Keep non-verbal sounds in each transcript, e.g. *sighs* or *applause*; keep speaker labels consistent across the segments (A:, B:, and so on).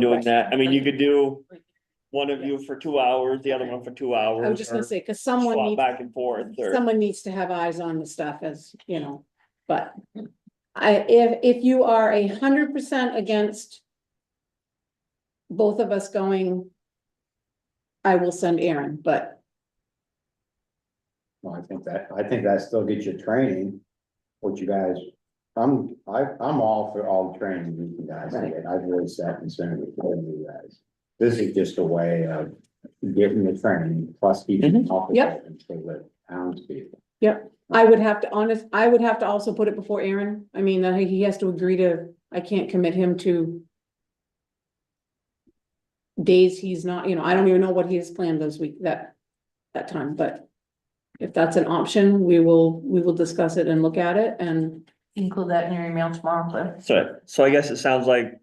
A: doing that. I mean, you could do one of you for two hours, the other one for two hours.
B: I was just gonna
A: or
B: say, cause someone
A: swap
B: needs,
A: Back and forth or,
B: someone needs to have eyes on the stuff as, you know, but. I, if, if you are a hundred percent against. Both of us going. I will send Aaron, but
C: Well, I think that, I think that still gets your training, what you guys, I'm, I, I'm all for all the training you guys get. I've always sat concerned with all of you guys. This is just a way of getting the training plus keeping off.
B: Yep.
C: For the towns people.
B: I would have to honest, I would have to also put it before Aaron. I mean, uh, he has to agree to, I can't commit him to. Days he's not, you know, I don't even know what he has planned those week, that, that time, but. If that's an option, we will, we will discuss it and look at it and.
D: Include that in your email tomorrow, Cliff.
A: so, so I guess it sounds like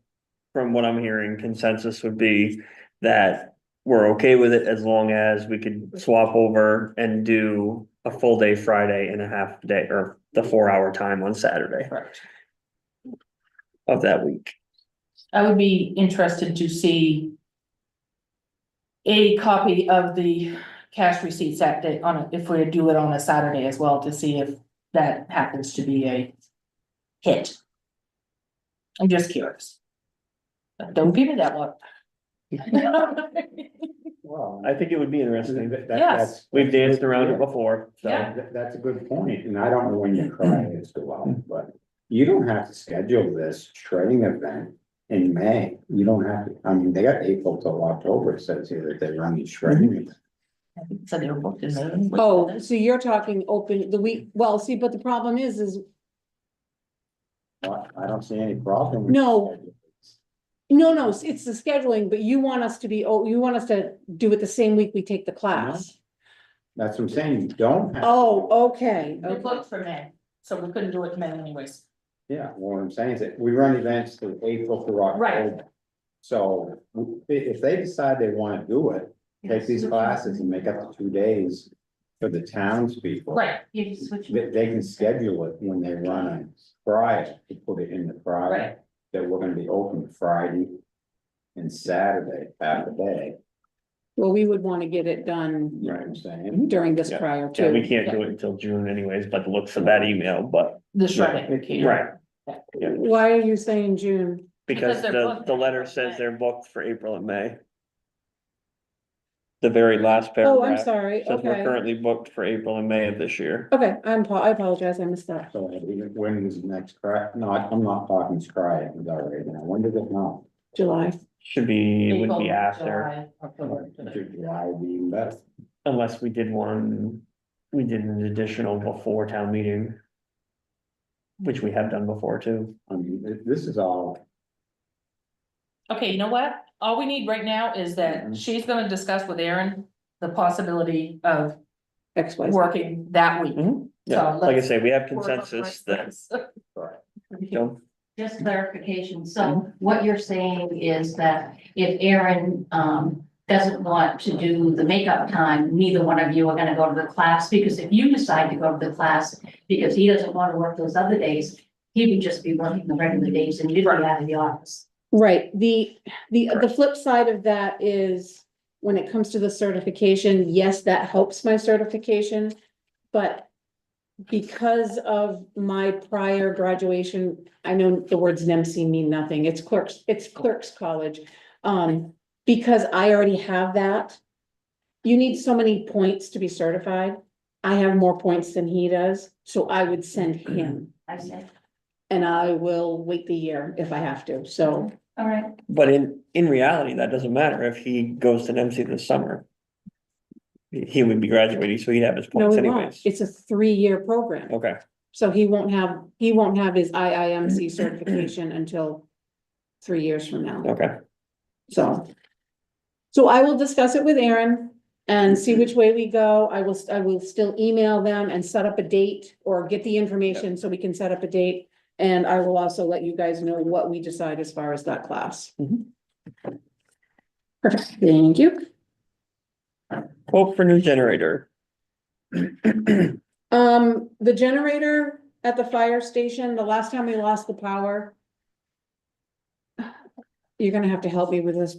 A: from what I'm hearing, consensus would be that we're okay with it as long as we could swap over and do a full day Friday and a half day or the four hour time on Saturday
D: Correct.
A: of that week.
D: I would be interested to see a copy of the cash receipts that day on, a- if we do it on a Saturday as well, to see if that happens to be a hit. I'm just curious. But Don't give
B: *laughs*
D: me that look.
C: Well,
A: I think it would be interesting.
C: that- that-
D: Yes.
C: that's-
A: We've danced around it before, so.
D: Yeah.
C: That, that's a good point, and I don't know when your cry is go out, but you don't have to schedule this training event in May. You don't have to, I mean, they got April till October, it says here that they run these training.
D: So they were booked in May.
B: Oh, so you're talking open the week, well, see, but the problem is, is,
C: Well, I don't see any problem. with
B: No.
C: scheduling.
B: no, no, it's- it's the scheduling, but you want us to be, oh, you want us to do it the same week we take the class.
C: That's what I'm saying, you don't have.
B: Oh, okay,
D: They're
B: okay.
D: booked for May, so we couldn't do it in May anyways.
C: Yeah, what I'm saying is that we run events through April through
D: Right.
C: October. So i- if they decide they wanna do it, take these classes and make up the two days for the townspeople.
D: Right, you switch.
C: They, they can schedule it when they run on Friday, to put it in the Friday,
D: Right.
C: that we're gonna be open Friday and Saturday, half a day,
B: Well, we would wanna get it done
C: you know what I'm saying?
B: during this
A: Yeah.
B: prior
A: Yeah, we
B: to.
A: can't do it until June anyways, but the looks of that email, but.
D: The shredding.
A: Right.
B: Why are you saying June?
A: Because
D: Because they're
A: the,
D: booked.
A: the letter says they're booked for April and May. The very last
B: Oh, I'm
A: paragraph says
B: sorry,
A: we're
B: okay,
A: currently booked for April and May of this year.
D: Oh.
B: okay, I'm, apo- I apologize, I missed that.
C: So when is the next cry? No, I- I'm not talking cry, it was already, now, when does it not?
B: July,
A: Should be, it would
D: April,
A: be after,
D: July, October, July.
C: July being best.
A: unless we did one, we did an additional before town meeting. Which we have done before too.
C: I mean, th- this is all,
D: Okay, you know what? All we need right now is that
A: Mm-hmm.
C: Mhm.
D: she's gonna discuss with Aaron the possibility of
B: X, Y, Z.
D: working that week.
A: Mhm. Yeah,
D: So
A: like I
D: let's
A: say, we have consensus that, don't-
E: Just clarification, so what you're saying is that if Aaron um doesn't want to do the makeup time, neither one of you are gonna go to the class, because if you decide to go to the class, because he doesn't wanna work those other days, he would just be working the regular days and you'd be out of the office.
B: Right, the, the, the
A: Correct.
B: flip side of that is, when it comes to the certification, yes, that helps my certification, but because of my prior graduation, I know the words NEMC mean nothing, it's clerks, it's clerks college. Um, because I already have that, you need so many points to be certified. I have more points than he does, so I would send him,
E: I said,
B: and I will wait the year if I have to, so.
E: all right,
A: but in, in reality, that doesn't matter if he goes to NMC this summer. He- He would be graduating, so he'd have his
B: No,
A: points
B: he won't.
A: anyways. Oh.
B: It's a three-year program,
A: Okay,
B: so he won't have, he won't have his IIMC certification until three years from now,
A: okay.
B: so. So I will discuss it with Aaron and see which way we go. I will, I will still email them and set up a date or get the information so we can set up a date. And I will also let you guys know what we decide as far as that class.
A: Mhm.
B: Perfect, thank you.
A: Quote for new generator. *clears throat*
B: Um, the generator *sighs* at the fire station, the last time we lost the power. you're gonna have to help me with this